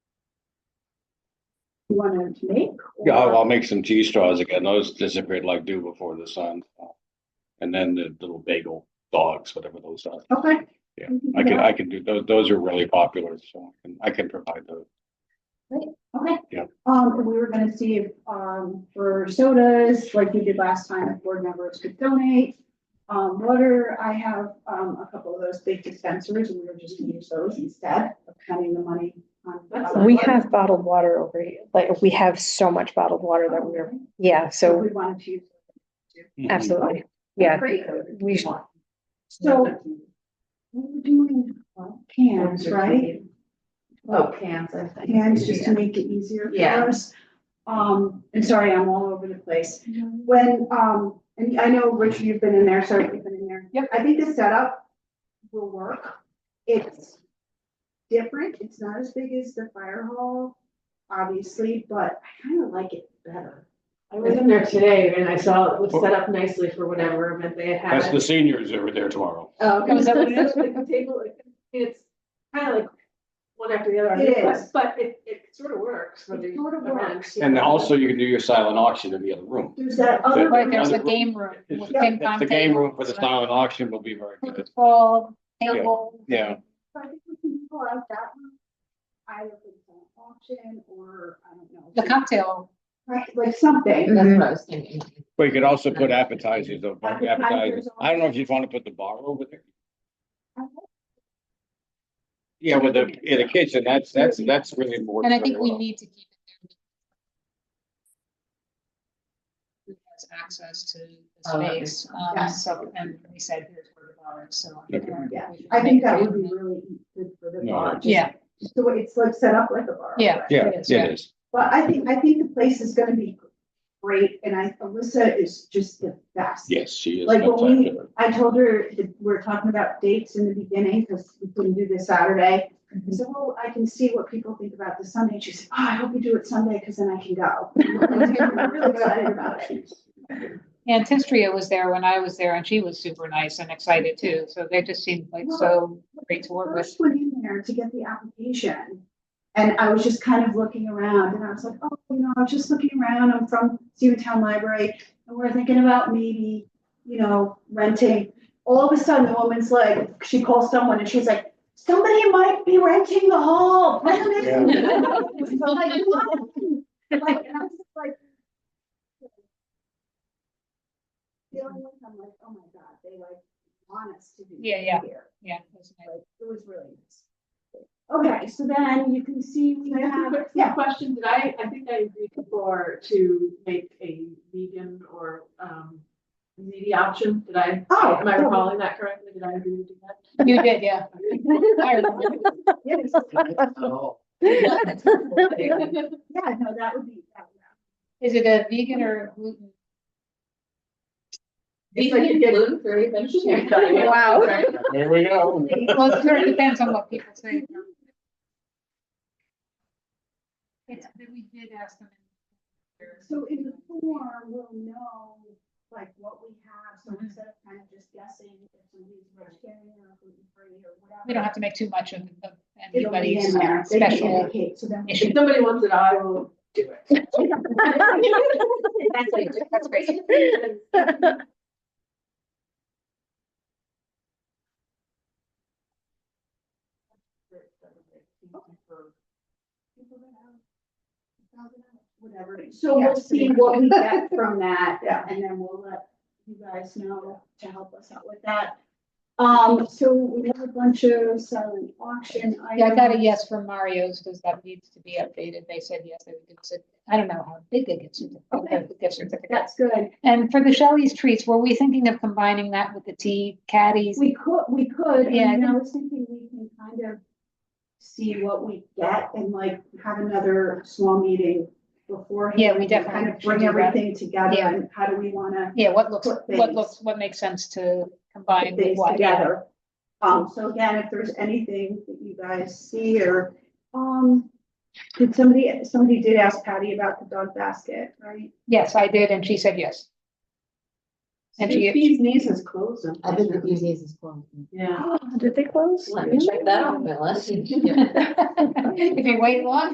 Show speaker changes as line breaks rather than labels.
you wanted to make?
Yeah, I'll,
or-
I'll make some cheese straws again. Those disappeared like dew before the sun. And then the little bagel dogs, whatever those are.
Okay.
Yeah,
We do
I can,
that.
I can do, those, those are really popular, so I can, I can provide those.
Okay.
Yeah.
Um, and we were gonna see if, um, for sodas, like we did last time, if board members could donate. Um, water, I have, um, a couple of those big dispensers and we were just gonna use those instead of counting the money. on-
That's
We have bottled water over here, like, we have so much bottled water that we're, yeah,
So
so
we wanted to use.
Mm-hmm. absolutely, yeah.
Great.
We should,
So we were doing well, cans, right?
Oh, cans, I think.
hands just to make it easier
Yeah.
for us. Um, and sorry, I'm all over the place. When, um, and I know, Richard, you've been in there, sorry, you've been in there. Yep. I think the setup will work. It's different. It's not as big as the fire hall, obviously, but I kind of like it better.
I was in there today and I saw it was set up nicely for whatever event they had.
That's the seniors over there tomorrow.
Oh, okay.
Oh, is that what it is?
Like the table, like, it's kind of like one after the other.
It
but-
is.
But it, it sort of works. for the
It sort of
event,
works.
yeah.
And also you can do your silent auction in the other room.
There's that other.
Right,
There's
Another
a
room.
game room.
It's-
with ping
it's
pong
The game
table,
room for the silent auction will be very good.
Football, table.
Yeah,
I think we can pull out that one. Either for the auction or, I don't know.
The cocktail.
Right, like something.
That's what I was thinking.
but you could also put appetizers, over- appetizers.
Appetizers.
I don't know if you'd want to put the bar over there.
Uh-huh.
I
Yeah, with the, in the kitchen, that's, that's, that's really more.
And I think we need to keep it there. Who has access to the
Oh, okay.
space? Um,
Yeah.
so, and we said here's where the bar is, so.
Okay.
Yeah, I think that would be really good for the
No.
bar. just-
Yeah,
So it's like set up like a bar.
Yeah.
Yeah,
It
it
is, yeah.
is.
But I think, I think the place is gonna be great, and I, Alyssa is just the best.
Yes, she is.
Like, when we-
spectacular.
I told her, that we're talking about dates in the beginning, because we couldn't do this Saturday.
Mm-hmm.
I said, well, I can see what people think about this Sunday, she said, oh, I hope you do it Sunday, because then I can go. I'm really excited about it.
She's-
and Tistria was there when I was there and she was super nice and excited too. So they just seemed like so great to work with.
First went in there to get the application, and I was just kind of looking around, and I was like, oh, you know, I'm just looking around, I'm from Seaton Library, and we're thinking about maybe, you know, renting. All of a sudden, the woman's like, she calls someone, and she's like, somebody might be renting the hall, put them in." It's like, what? Like, and I was just like. Feeling like, I'm like, oh my God, they like want us to be.
Yeah, yeah.
here.
Yeah. it was nice.
Like, it was really nice. Okay, so then you can see we
Can I ask a
have,
quick-
yeah,
Question, did I, I think I agreed before to make a vegan or, um, meaty option, did I?
Oh,
Am I
yeah.
recalling that correctly, did I agree to do that?
You did, yeah. I remember.
yes, yeah, no, that would be. that would-
Is it a vegan or gluten?
It's like you get gluten free, then you can't cut it.
Wow.
Right.
There we go.
Well, it sort of depends on what people say. It's, we did ask them.
So in the form, we'll know like what we have, so instead of kind of just guessing if somebody's vegetarian or gluten free or whatever.
We don't have to make too much of of
It'll be
anybody's
in there. They can
special
indicate, So then.
issue.
If somebody wants it, I will do it.
That's great.
Whatever, so we'll see what we get from that.
Yeah.
And then we'll let you guys know to help us out with that. Um, so we have a bunch of silent auction items.
Yeah, I got a yes from Mario's because that needs to be updated. They said yes, they would give us a, I don't know how big they get
Okay.
certificate, gift certificate.
That's good.
And for the Shelley's treats, were we thinking of combining that with the tea caddies?
We could, we could,
Yeah, I
and I was thinking we can kind of see what we get and like have another small meeting beforehand.
Yeah, we
and
definitely
Kind of
should
bring
do that.
everything together
Yeah.
and how do we wanna
Yeah, what looks,
Put
what
things-
looks, what makes sense to
put
combine with
things
what? yeah.
together. Um, so again, if there's anything that you guys see or, um, did somebody, somebody did ask Patty about the dog basket, right?
Yes, I did, and she said yes. And she-
Steve's niece is closed.
I think the easiest is closed.
Yeah.
did they close?
Let me check that off my list.
If you wait long